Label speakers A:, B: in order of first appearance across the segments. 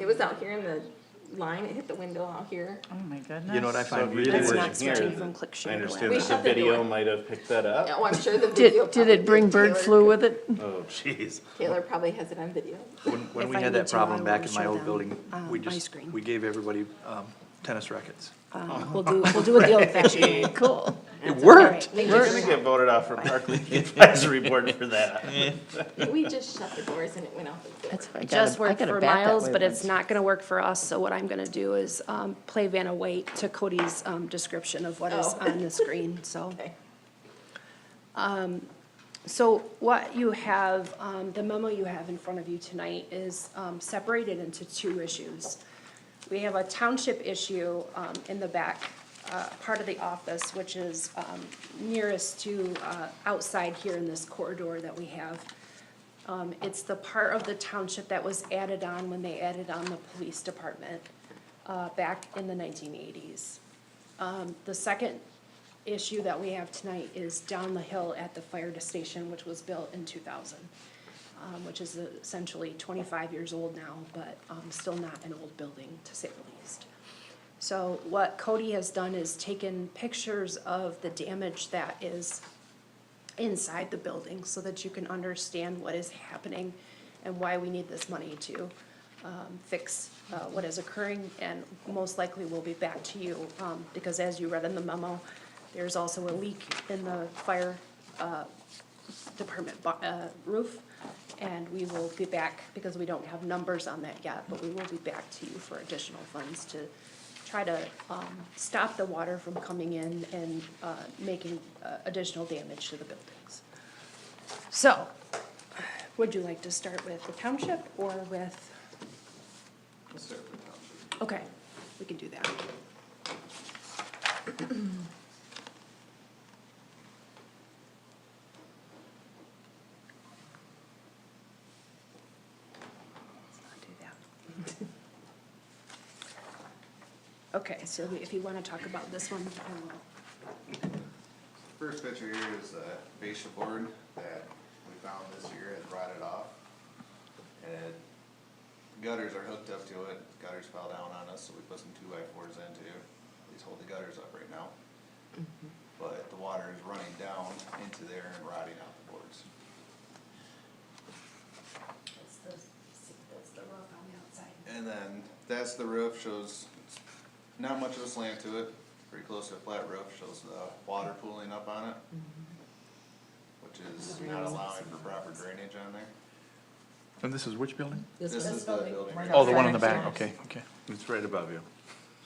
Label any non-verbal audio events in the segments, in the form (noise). A: It was out here in the line, it hit the window out here.
B: Oh, my goodness.
C: You know what I
D: So
C: find
D: if you
C: really
D: were
C: weird?
E: not
D: here,
E: switching from click share
D: I
E: to
A: web.
D: understand that
A: We
D: the
A: shut the
D: video
A: door.
D: might have picked that up.
A: Oh, I'm sure the video
E: (laughs) Did,
A: probably.
E: did it bring bird
A: Taylor-
E: flu with it?
D: Oh, jeez.
A: Taylor probably has it on
E: (laughs)
A: video.
C: When, when
E: If
C: we
E: I
C: had
E: need
C: that
E: to, I
C: problem
E: will
C: back in my
E: show
C: old
E: them,
C: building,
E: uh,
C: we
E: my
C: just,
E: screen.
C: we gave everybody um, tennis rackets.
E: Um, We'll do, we'll do it the old fashioned, (laughs) cool.
C: It worked.
E: All right,
D: You're
E: we're-
D: gonna get voted off for Park
E: (laughs)
D: League Advisory Board for that.
A: We just shut the doors and it went out the door.
E: That's what I got.
F: just worked for Miles, but it's not gonna work for us, so what I'm gonna do is, um, play Vanna White to Cody's, um, description of what is
A: Oh.
F: on the screen, so.
A: (laughs) Okay.
F: So what you have, um, the memo you have in front of you tonight is, um, separated into two issues. We have a township issue, um, in the back, uh, part of the office, which is, um, nearest to, uh, outside here in this corridor that we have. Um, it's the part of the township that was added on when they added on the police department, uh, back in the nineteen eighties. Um, the second issue that we have tonight is down the hill at the fire station, which was built in two thousand. Um, which is essentially twenty-five years old now, but, um, still not an old building, to say the least. So what Cody has done is taken pictures of the damage that is inside the building so that you can understand what is happening and why we need this money to um, fix uh, what is occurring and most likely will be back to you. um, Because as you read in the memo, there's also a leak in the fire uh, department bo- uh, roof. And we will be back, because we don't have numbers on that yet, but we will be back to you for additional funds to try to um, stop the water from coming in and uh, making uh, additional damage to the buildings. So, would you like to start with the township or with? Okay, we can do that. Let's not do that. Okay, so if you want to talk about this one, I will.
G: First picture here is a fascia board that we found this year and rotted off. And gutters are hooked up to it, gutters fell down on us, so we put some two by fours into, these hold the gutters up right now. But the water is running down into there and rotting out the boards.
F: That's the, that's the roof on the outside.
G: And then that's the roof, shows it's not much of a slant to it, pretty close to a flat roof, shows the water pooling up on it. Which is not allowing for proper drainage on there.
C: And this is which building?
G: This is the building. right
C: Oh, the one in the
B: Outside,
C: back, okay, okay.
D: It's right above you.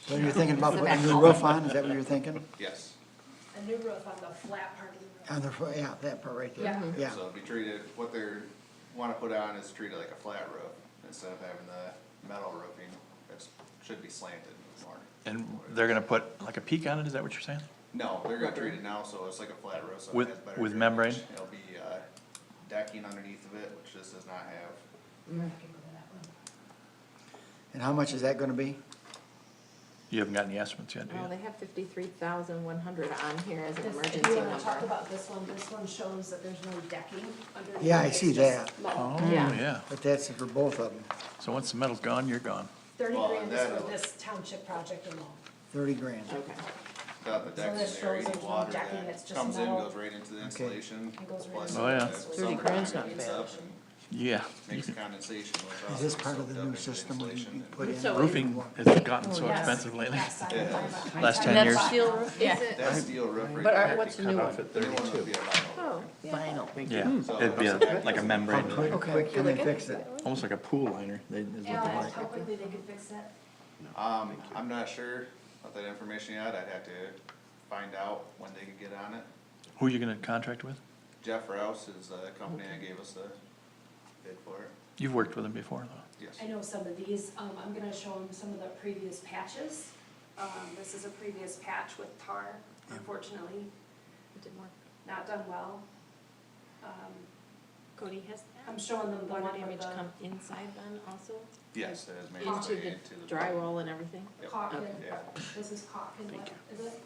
H: So you're thinking about putting a new roof on, is that what you're thinking?
G: Yes,
F: A new roof on the flat part of the roof.
H: On the, fr- yeah, that part right there,
F: Yeah.
H: yeah.
G: so it'd be treated, what they're, wanna put on is treated like a flat roof, instead of having the metal roofing, that's, should be slanted more.
C: And they're gonna put like a peak on it, is that what you're saying?
G: No, they're gonna treat it now, so it's like a flat roof, so it
C: With-
G: has better.
C: with
G: drainage.
C: membrane?
G: It'll be, uh, decking underneath of it, which this does not have,
H: And how much is that gonna be?
C: You haven't gotten the estimates yet, do
A: Well,
C: you?
A: Oh, they have fifty-three thousand one hundred on here as an
F: This-
A: emergency
F: If you wanna talk
A: number.
F: about this one, this one shows that there's no decking underneath.
H: Yeah, I
F: It's
H: see
F: just
H: that.
F: metal.
C: Oh,
A: Yeah.
C: yeah.
H: But that's for both of them,
C: So once the metal's gone, you're gone.
F: Thirty
G: Well,
F: grand
G: that-
F: is for this township project alone.
H: thirty grand.
A: Okay.
G: without the decking
F: this
G: there,
F: shows
G: any
F: there's no
G: water
F: decking, it's
G: that
F: just
G: comes in,
F: metal.
G: goes right into the insulation.
F: goes right
G: plus
C: Oh, yeah.
G: the
F: Thirty
G: summertime
F: grand's not
G: heats
F: bad.
G: up and
C: Yeah.
G: Makes condensation, which
H: Is
G: also
H: this
G: is
H: part
G: soaked
H: of the
G: up
H: new
G: into
H: system we
G: insulation and-
H: put in?
A: So-
C: Roofing has
E: Oh,
C: gotten so expensive lately, last ten years.
A: Is it,
G: That steel roof
B: But
G: right there.
B: are- what's the new one?
G: The new one would be a vinyl roof.
A: oh,
B: Vinyl.
C: Yeah, it'd be a- like a
H: How
C: membrane,
H: quick, quick can they fix it?
C: almost like a pool liner, they, is what they like.
F: how quickly they could fix that?
G: Um, I'm not sure of that information yet, I'd have to find out when they could get on it.
C: Who are you gonna contract with?
G: Jeff Rouse is the company that gave us the bid for it,
C: You've worked with them before, though.
G: yes.
F: I know some of these, um, I'm gonna show them some of the previous patches. Um, this is a previous patch with tar, unfortunately,
A: it didn't work.
F: not done well. Um,
A: Cody has
F: I'm
A: that.
F: showing them the
A: Water
F: one
A: damage
F: with the-
A: come inside then also,
G: Yes, that has made its
A: into
G: way
A: the
G: into the.
A: drywall and everything?
G: Yep.
F: Caucus,
G: Yeah,
F: this is caulk and what is it?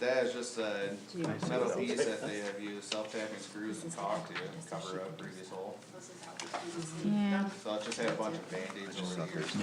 G: that is just a
A: Do you-
G: metal piece that they have used self-tapping screws and caulk to cover up previous hole.
F: This is how it's used.
G: So I just had a bunch of Band-Aids over the years.